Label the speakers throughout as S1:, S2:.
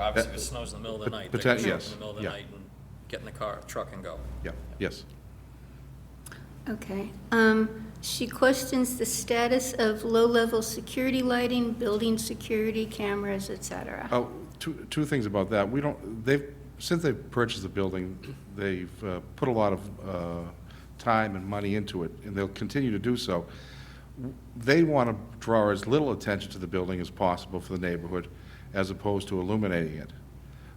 S1: obviously if it snows in the middle of the night, they
S2: pot-
S1: can
S2: poten-
S1: show up
S2: yes,
S1: in the middle of the
S2: yeah.
S1: night and get in the car, truck and go.
S2: Yeah, yes.
S3: Okay. Um, She questions the status of low-level security lighting, building security cameras, et cetera.
S2: Oh, two, two things about that. We don't, they've, since they've purchased the building, they've uh, put a lot of uh, time and money into it, and they'll continue to do so. They want to draw as little attention to the building as possible for the neighborhood, as opposed to illuminating it.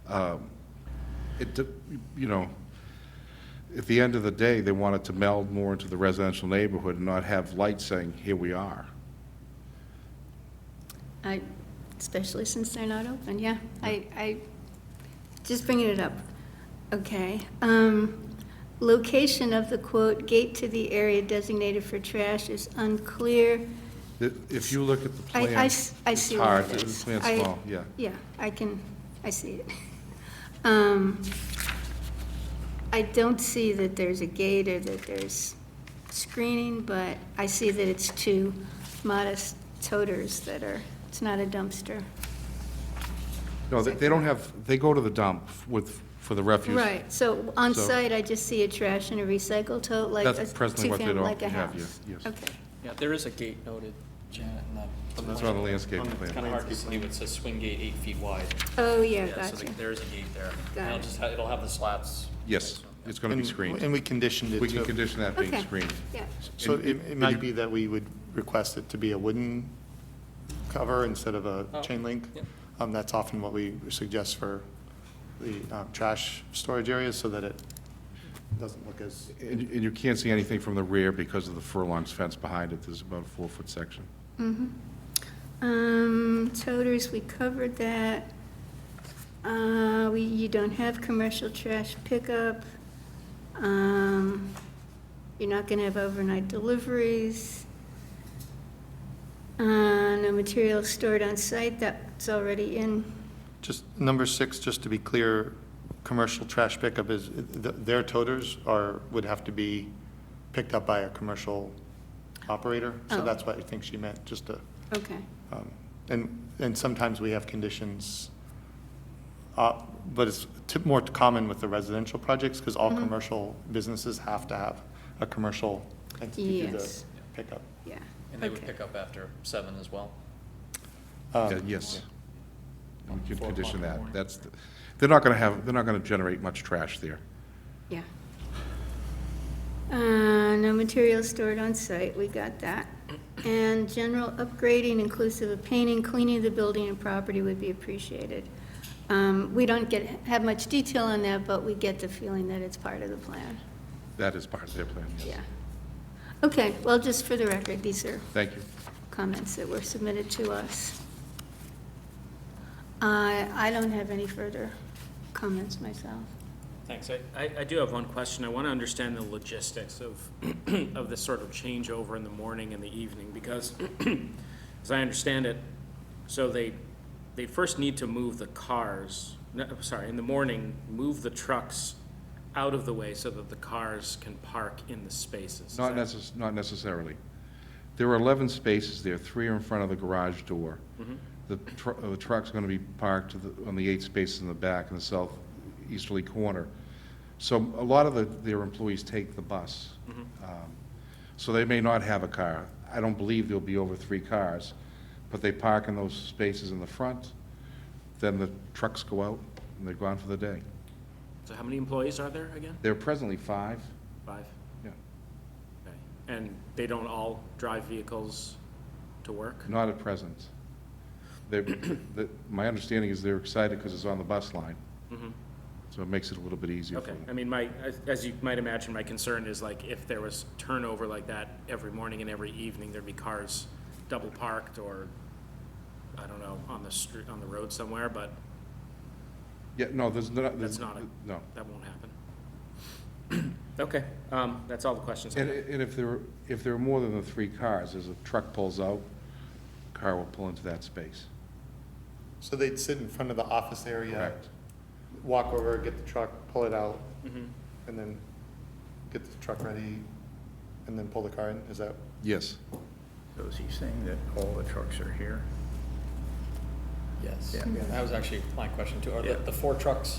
S2: Um, It, de- you know, at the end of the day, they want it to meld more into the residential neighborhood and not have lights saying, here we are.
S3: I, especially since they're not open, yeah. I, I, just bringing it up. Okay. Um, Location of the quote, "gate to the area designated for trash" is unclear.
S2: If if you look at the
S3: I- I
S2: plan.
S3: s- I see what
S2: It's hard,
S3: it
S2: the
S3: is.
S2: plan's
S3: I-
S2: small, yeah.
S3: Yeah, I can, I see it. Um, I don't see that there's a gate or that there's screening, but I see that it's two modest toters that are, it's not a dumpster.
S2: No, they, they don't have, they go to the dump with, for the refuse.
S3: Right, so on
S2: So-
S3: site, I just see a trash and a recycle tote, like
S2: That's
S3: a
S2: presently what they
S3: two-family,
S2: don't
S3: like a
S2: have,
S3: house.
S2: yeah, yes.
S3: Okay,
S4: Yeah, there is a gate noted, Janet, in the-
S2: That's on the landscape
S1: Um, It's kind
S2: plan.
S1: of hard to see, but it says swing gate eight feet wide.
S3: oh, yeah,
S1: Yeah, so
S3: gotcha.
S1: the- there is a gate there.
S3: Got
S1: And it'll
S3: it.
S1: just, ha- it'll have the slats.
S2: Yes, it's gonna be
S5: And-
S2: screened.
S5: And we conditioned it
S2: We can
S5: to,
S2: condition that being
S3: Okay,
S2: screened.
S3: yeah.
S5: so
S2: And-
S5: it, it
S2: and
S5: might
S2: you-
S5: be that we would request it to be a wooden cover instead of a
S1: Oh,
S5: chain link.
S1: yep.
S5: Um, that's often what we suggest for the, um, trash storage areas, so that it doesn't look as,
S2: And, and you can't see anything from the rear because of the furlong's fence behind it. There's about a four-foot section.
S3: Um, toters, we covered that. Uh, we, you don't have commercial trash pickup. Um, you're not gonna have overnight deliveries. Uh, no materials stored on site, that's already in.
S5: just, number six, just to be clear, commercial trash pickup is, th- their toters are, would have to be picked up by a commercial operator. So
S3: Oh.
S5: that's what I think she meant, just to
S3: Okay,
S5: Um, And, and sometimes we have conditions, uh, but it's t- more common with the residential projects, because all commercial businesses have to have a commercial entity do the
S3: Yes.
S5: pickup.
S3: yeah.
S1: And they would
S3: okay.
S1: pick up after seven as well.
S5: Um,
S2: Yeah, Yes. We can
S1: Four o'clock
S2: condition
S1: in the
S2: that.
S1: morning.
S2: That's, the- they're not gonna have, they're not gonna generate much trash there.
S3: Yeah. Uh, No materials stored on site, we got that. And general upgrading inclusive of painting, cleaning of the building and property would be appreciated. Um, We don't get, have much detail on that, but we get the feeling that it's part of the plan,
S2: That is part of their plan, yes.
S3: yeah. Okay, well, just for the record, these are
S2: Thank you.
S3: comments that were submitted to us. I I don't have any further comments myself.
S6: Thanks. I- I, I do have one question. I want to understand the logistics of, of this sort of changeover in the morning and the evening, because as I understand it, so they, they first need to move the cars, no, I'm sorry, in the morning, move the trucks out of the way so that the cars can park in the spaces. Is
S2: Not
S6: that-
S2: necess, not necessarily. There are 11 spaces there, three are in front of the garage door. The tr- uh, the truck's going to be parked to the- on the eight spaces in the back in the southeasterly corner. So a lot of the- their employees take the bus. Um, So they may not have a car. I don't believe there'll be over three cars, but they park in those spaces in the front, then the trucks go out, and they're gone for the day.
S6: So how many employees are there again?
S2: There are presently five,
S6: Five?
S2: yeah.
S6: Okay. And they don't all drive vehicles to work?
S2: Not at present. They, the- my understanding is they're excited because it's on the bus line,
S6: Mhm.
S2: so it makes it a little bit easier for
S6: Okay, I
S2: them.
S6: mean, my, as- as you might imagine, my concern is like if there was turnover like that every morning and every evening, there'd be cars double parked or, I don't know, on the street, on the road somewhere, but
S2: Yeah, no, there's not, there's,
S6: that's not,
S2: no.
S6: a- that won't happen. Okay, um, that's all the questions I
S2: And,
S6: have.
S2: and if there, if there are more than the three cars, as a truck pulls out, car will pull into that space.
S5: So they'd sit in front of the office area,
S2: Correct.
S5: walk over, get the truck, pull it out, and then get the truck ready, and then pull the car in, is that?
S2: Yes.
S7: So is he saying that all the trucks are here?
S4: yes.
S1: Yeah, that was actually my question too. Are the,
S6: Yeah.
S1: the four trucks